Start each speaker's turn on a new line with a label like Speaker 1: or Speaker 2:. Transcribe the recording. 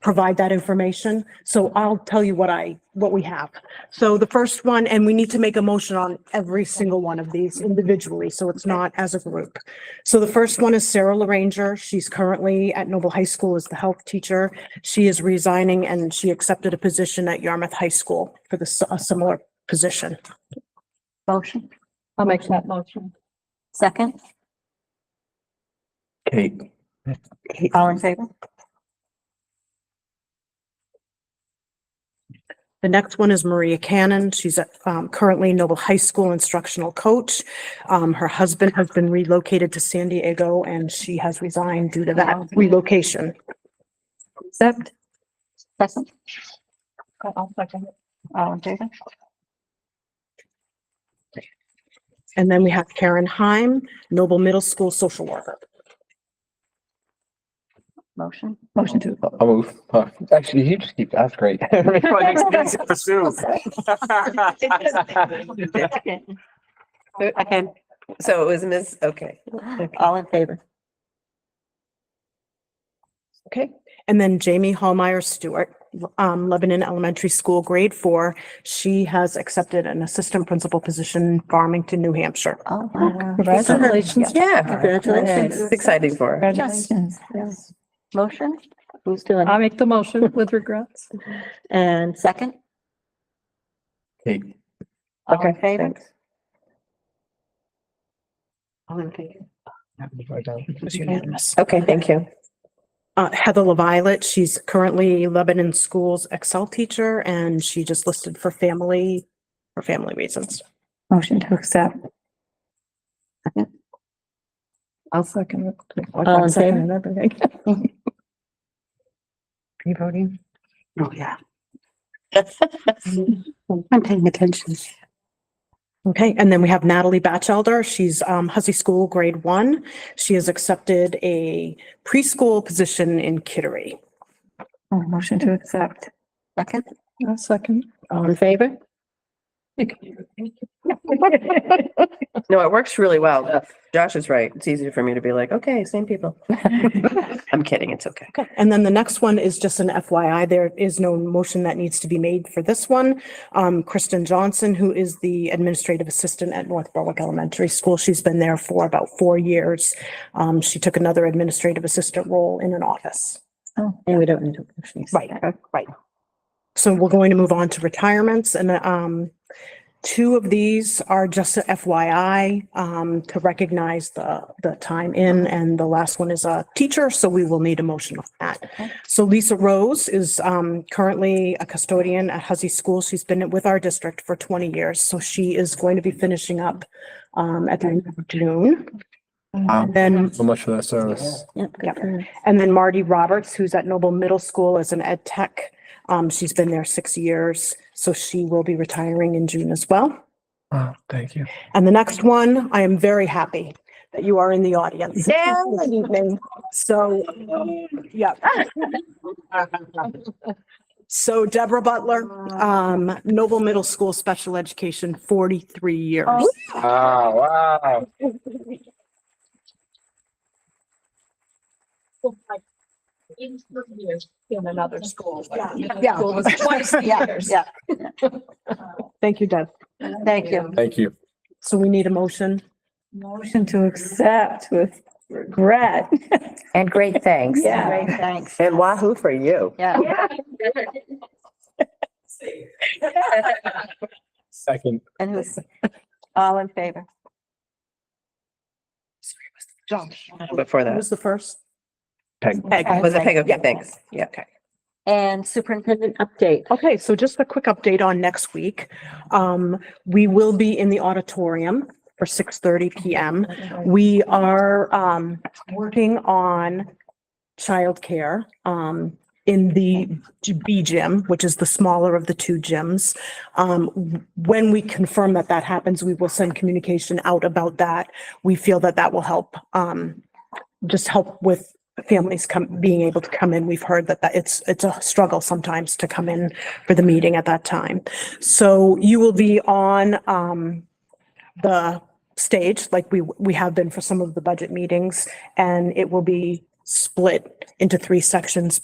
Speaker 1: provide that information. So I'll tell you what I, what we have. So the first one, and we need to make a motion on every single one of these individually, so it's not as a group. So the first one is Sarah LaRanger. She's currently at Noble High School as the health teacher. She is resigning and she accepted a position at Yarmouth High School for the, s- a similar position.
Speaker 2: Motion. I'll make that motion. Second.
Speaker 3: Kate,
Speaker 2: All in favor?
Speaker 1: The next one is Maria Cannon. She's at, um, currently Noble High School instructional coach. Um, her husband has been relocated to San Diego and she has resigned due to that relocation.
Speaker 2: Accept. Second. I'll second it. All in favor?
Speaker 1: And then we have Karen Heim, Noble Middle School social worker.
Speaker 2: Motion. Motion to.
Speaker 3: I'll move. Uh, Actually, you just keep, that's great.
Speaker 2: Second.
Speaker 4: Okay, so it was Ms., okay.
Speaker 2: All in favor?
Speaker 4: Okay.
Speaker 1: And then Jamie Hallmeyer Stewart, um, Lebanon Elementary School, grade four. She has accepted an assistant principal position in Farmington, New Hampshire.
Speaker 2: Oh,
Speaker 4: Congratulations. Yeah.
Speaker 2: Congratulations.
Speaker 4: It's Exciting for her.
Speaker 2: Congratulations. Motion? Who's doing
Speaker 5: I
Speaker 2: it?
Speaker 5: make the motion with regrets.
Speaker 2: And second?
Speaker 3: Kate,
Speaker 2: All in favor?
Speaker 1: It's unanimous.
Speaker 4: Okay, thank you.
Speaker 1: Uh, Heather LaViolet, she's currently Lebanon Schools Excel teacher and she just listed for family, for family reasons.
Speaker 2: Motion to accept.
Speaker 5: I'll second it.
Speaker 2: All in favor?
Speaker 4: You voting?
Speaker 6: Oh, yeah. I'm paying attention.
Speaker 1: Okay, and then we have Natalie Batchelder. She's um Hussey School, grade one. She has accepted a preschool position in Kittery.
Speaker 2: Oh, Motion to accept. Second?
Speaker 5: I'll second.
Speaker 4: All in favor? No, it works really well. Josh is right. It's easier for me to be like, okay, same people. I'm kidding, it's okay.
Speaker 1: Okay, and then the next one is just an FYI. There is no motion that needs to be made for this one. Um, Kristen Johnson, who is the administrative assistant at North Berwick Elementary School, she's been there for about four years. Um, she took another administrative assistant role in an office.
Speaker 2: Oh, and we don't need to.
Speaker 1: Right, right. So we're going to move on to retirements and um, two of these are just a FYI um, to recognize the, the time in and the last one is a teacher, so we will need a motion on that.
Speaker 2: Okay.
Speaker 1: So Lisa Rose is um, currently a custodian at Huzzy School. She's been with our district for 20 years, so she is going to be finishing up um, at the end of June.
Speaker 3: Wow.
Speaker 1: Then
Speaker 3: so much for that service.
Speaker 1: Yep. And then Marty Roberts, who's at Noble Middle School as an ed tech. Um, she's been there six years, so she will be retiring in June as well.
Speaker 3: Oh, thank you.
Speaker 1: And the next one, I am very happy that you are in the audience this evening. So, yeah. So Deborah Butler, um, Noble Middle School Special Education, forty-three years.
Speaker 3: Ah, wow.
Speaker 5: In another school.
Speaker 1: Yeah.
Speaker 5: School was twice the years.
Speaker 2: Yeah.
Speaker 1: Thank you, Deb.
Speaker 2: Thank you.
Speaker 3: Thank you.
Speaker 1: So we need a motion.
Speaker 7: Motion to accept with regret.
Speaker 2: And great thanks.
Speaker 7: Yeah.
Speaker 2: Great thanks.
Speaker 4: And wahoo for you.
Speaker 2: Yeah.
Speaker 3: Second.
Speaker 2: And who's, all in favor?
Speaker 1: Josh.
Speaker 4: Before
Speaker 1: Who
Speaker 4: that.
Speaker 1: was the first?
Speaker 3: Peg.
Speaker 4: Peg, was it Peg? Okay,
Speaker 1: Yeah.
Speaker 4: thanks. Yeah, okay.
Speaker 2: And superintendent update.
Speaker 1: Okay, so just a quick update on next week. Um, we will be in the auditorium for six thirty PM. We are, um, working on childcare, um, in the G- B gym, which is the smaller of the two gyms. Um, w- when we confirm that that happens, we will send communication out about that. We feel that that will help, um, just help with families come, being able to come in. We've heard that, that it's, it's a struggle sometimes to come in for the meeting at that time. So you will be on um the stage like we we have been for some of the budget meetings and it will be split into three sections